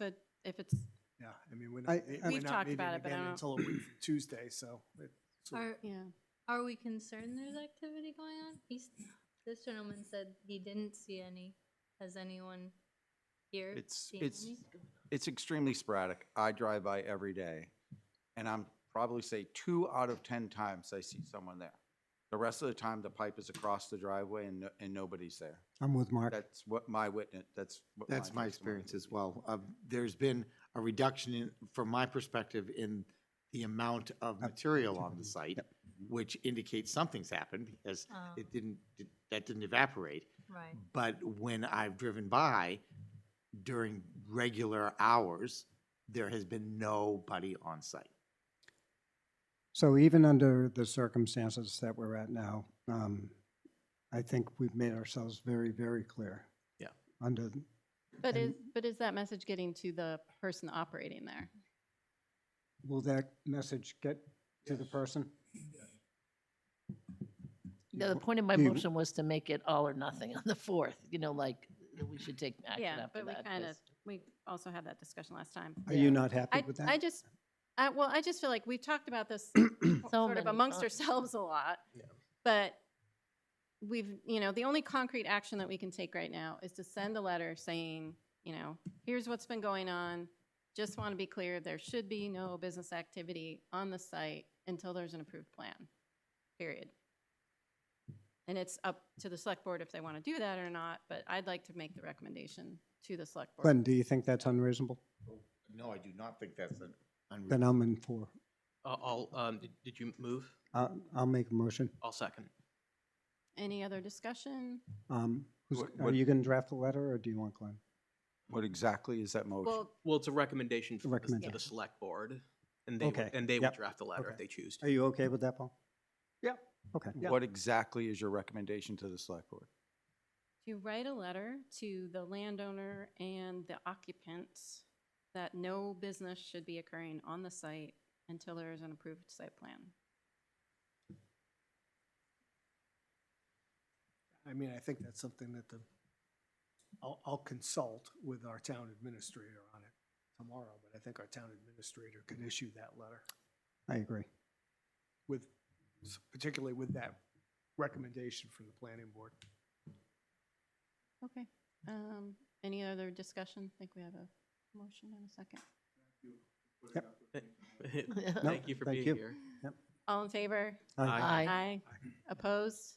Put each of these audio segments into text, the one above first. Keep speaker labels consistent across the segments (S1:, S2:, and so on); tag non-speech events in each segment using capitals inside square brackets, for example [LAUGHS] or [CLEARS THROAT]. S1: a, if it's,
S2: Yeah, I mean, we're
S3: I-
S2: not,
S3: We've
S2: we're not
S1: talked
S2: meeting
S1: about it, but I
S2: again
S1: don't-
S2: until a week from Tuesday, so. it- so-
S4: Are,
S1: yeah.
S4: are we concerned there's activity going on? He's, this gentleman said he didn't see any. Has anyone here
S5: It's-
S4: seen
S5: it's-
S4: any?
S5: It's extremely sporadic. I drive by every day, and I'm probably say two out of 10 times I see someone there. The rest of the time, the pipe is across the driveway and, no- and nobody's there.
S3: I'm with Mark.
S5: That's what my witness, that's what
S6: That's my
S5: testimony
S6: experience
S5: is.
S6: as well. Uh, There's been a reduction in, from my perspective, in the amount of material on the site,
S3: Mm-hmm.
S6: which indicates something's happened because
S4: Oh,
S6: it didn't, that didn't evaporate.
S4: right.
S6: But when I've driven by during regular hours, there has been nobody on site.
S3: So even under the circumstances that we're at now, um, I think we've made ourselves very, very clear.
S6: Yeah.
S3: Under,
S1: But is,
S3: And-
S1: but is that message getting to the person operating there?
S3: will that message get to the person?
S7: No, the point of my
S3: Do you-
S7: motion was to make it all or nothing on the fourth, you know, like, that we should take action
S1: Yeah,
S7: after
S1: but
S7: that.
S1: we kind of,
S7: 'cause-
S1: we also had that discussion last time.
S3: Are you
S7: Yeah.
S3: not
S1: I,
S3: happy with
S1: I
S3: that?
S1: just, I, well, I just feel like we've talked about
S3: [CLEARS THROAT]
S1: this sort of
S7: many
S1: amongst
S7: times.
S1: ourselves a lot.
S6: Yeah.
S1: But we've, you know, the only concrete action that we can take right now is to send a letter saying, you know, here's what's been going on. Just want to be clear, there should be no business activity on the site until there's an approved plan, period. And it's up to the select board if they want to do that or not, but I'd like to make the recommendation to the select board.
S3: Glenn, do you think that's unreasonable?
S6: No, I do not think that's an
S3: Then
S6: unreasonable.
S3: I'm in for,
S8: I'll, I'll, um, did- did you move?
S3: I'll, I'll make a motion.
S8: I'll second.
S1: Any other discussion?
S3: Um, who's-
S5: What-
S3: Are
S5: what-
S3: you going to draft the letter or do you want Glenn?
S5: What exactly is that motion?
S1: Well,
S8: Well, it's a recommendation for the- to
S3: Recommendation.
S8: the select board, and they, would-
S3: Okay,
S8: and they will
S3: yep,
S8: draft the letter
S3: okay.
S8: if they choose to.
S3: Are you okay with that, Paul?
S5: Yeah.
S3: Okay.
S5: What exactly is your recommendation to the select board?
S1: to write a letter to the landowner and the occupants that no business should be occurring on the site until there is an approved site plan.
S2: I mean, I think that's something that the, I'll, I'll consult with our town administrator on it tomorrow, but I think our town administrator can issue that letter
S3: I agree.
S2: with, particularly with that recommendation from the planning board.
S1: Okay. Um, any other discussion? I think we have a motion and a second.
S8: [LAUGHS] Thank you for
S3: thank
S8: being
S3: you.
S8: here.
S1: All in favor?
S8: Aye.
S7: Aye.
S1: Opposed?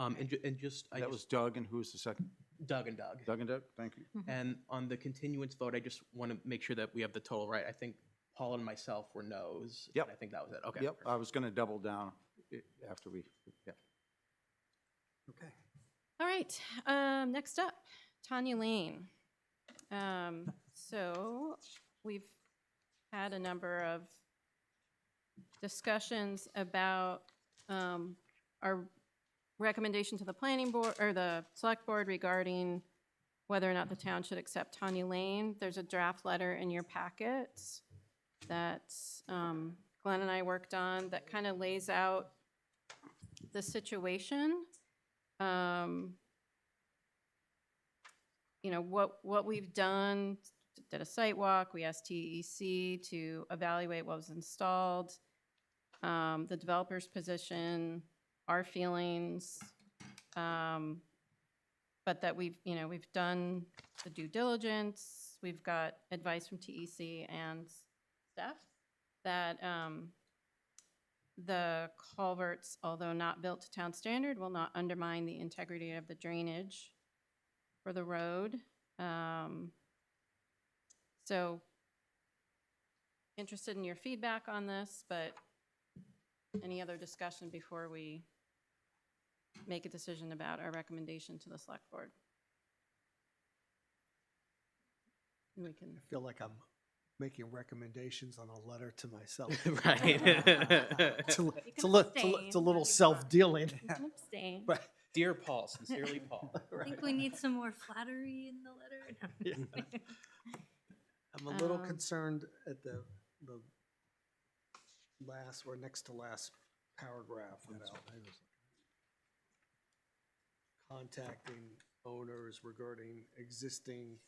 S8: Um, and, ju- and just, I
S5: That was
S8: just,
S5: Doug, and who was the second?
S8: Doug and Doug.
S5: Doug and Doug, thank you.
S8: And on the continuance vote, I just want to make sure that we have the total right. I think Paul and myself were no's. and
S5: Yep.
S8: I think that was it, okay.
S5: Yep, I was going to double down i- after we, yeah.
S2: Okay.
S1: All right, um, next up, Tanya Lane. Um, so we've had a number of discussions about, um, our recommendation to the planning board, or the select board regarding whether or not the town should accept Tanya Lane. There's a draft letter in your packets that, um, Glenn and I worked on that kind of lays out the situation um, you know, what, what we've done, did a site walk, we asked TEC to evaluate what was installed, um, the developer's position, our feelings, um, but that we've, you know, we've done the due diligence, we've got advice from TEC and staff that, um, the culverts, although not built to town standard, will not undermine the integrity of the drainage for the road. Um, So interested in your feedback on this, but any other discussion before we make a decision about our recommendation to the select board? We
S2: I
S1: can,
S2: feel like I'm making recommendations on a letter to [LAUGHS] myself.
S8: [LAUGHS] Right.
S2: [LAUGHS] It's a, li-
S1: You can
S2: it's a li- it's a li-
S1: abstain
S2: it's a
S1: if you
S2: little
S1: want.
S2: self-dealing.
S1: you can abstain.
S2: But
S8: Dear Paul, sincerely Paul.
S4: I think we need some more flattery in the letter. No.
S2: I'm a little
S1: Um,
S2: concerned at the, the last or next to last paragraph about contacting owners regarding existing